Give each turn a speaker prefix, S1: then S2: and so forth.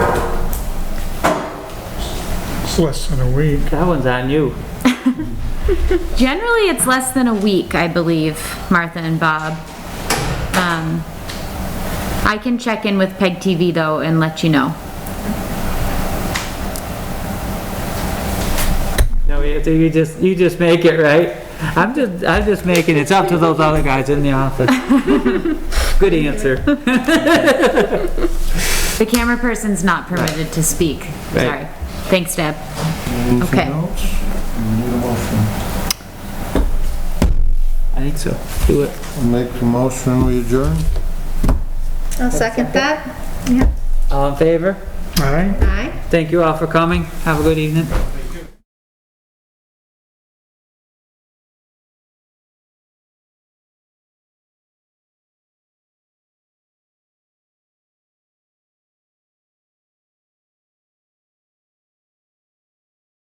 S1: less than a week.
S2: That one's on you.
S3: Generally, it's less than a week, I believe, Martha and Bob. Um, I can check in with Peg TV though and let you know.
S2: No, you, you just, you just make it, right? I'm just, I'm just making, it's up to those other guys in the office. Good answer.
S3: The camera person's not permitted to speak.
S2: Right.
S3: Sorry. Thanks, Deb. Okay.
S4: Anything else? We need a motion.
S2: I think so. Do it.
S4: I'll Make the motion, we adjourn?
S5: I'll second that.
S2: All in favor?
S1: Aye.
S5: Aye.
S2: Thank you all for coming. Have a good evening.